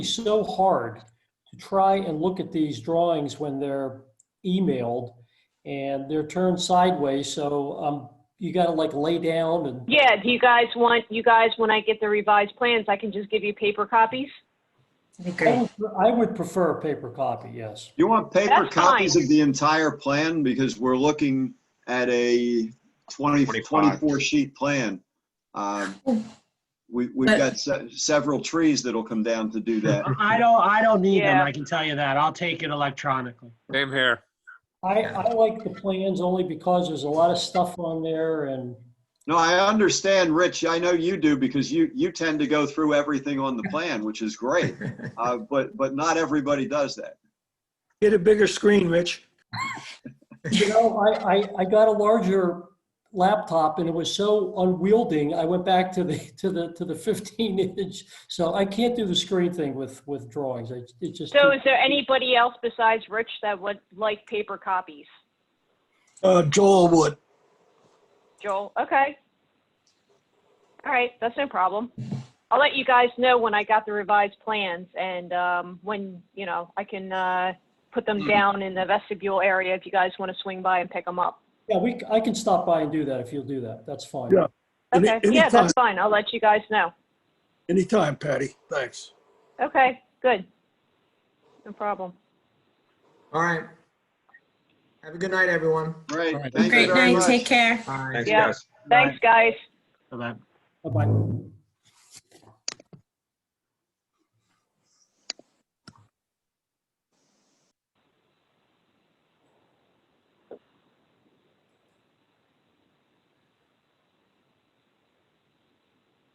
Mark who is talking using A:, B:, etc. A: be so hard to try and look at these drawings when they're emailed and they're turned sideways, so um, you gotta like lay down and,
B: Yeah, do you guys want, you guys, when I get the revised plans, I can just give you paper copies?
C: That'd be
A: I
C: great.
A: would- I would prefer a paper copy, yes.
D: You want paper
B: That's fine.
D: copies of the entire plan because we're looking at a 20,
E: 25.
D: 24 sheet plan. Um, We, we've
C: But-
D: got se- several trees that'll come down to do that.
F: I don't, I don't need them,
B: Yeah.
F: I can tell you that. I'll take it electronically.
E: Same here.
A: I, I like the plans only because there's a lot of stuff on there and,
D: No, I understand, Rich. I know you do because you, you tend to go through everything on the plan, which is great. Uh, But, but not everybody does that.
G: Get a bigger screen, Rich.
A: you know, I, I, I got a larger laptop and it was so unwieldy, I went back to the, to the, to the 15 inch. So I can't do the screen thing with, with drawings. I- It's just.
B: So
A: too-
B: is there anybody else besides Rich that would like paper copies?
G: Uh, Joel Wood.
B: Joel, okay. All right, that's no problem. I'll let you guys know when I got the revised plans and um, when, you know, I can uh, put them down in the vestibule area if you guys want to swing by and pick them up.
A: Yeah, we, c- I can stop by and do that if you'll do that. That's fine.
G: Yeah. Any-
B: Okay, yeah,
G: anytime.
B: that's fine. I'll let you guys know.
G: Anytime, Patty. Thanks.
B: Okay, good. No problem.
H: All right. Have a good night, everyone.
D: Great.
F: All right.
D: Thank you
C: Great
D: very
C: night,
D: much.
C: take care.
H: Bye.
E: Thanks,
B: Yeah.
E: guys.
B: Thanks, guys.
F: Bye-bye.
A: Bye-bye.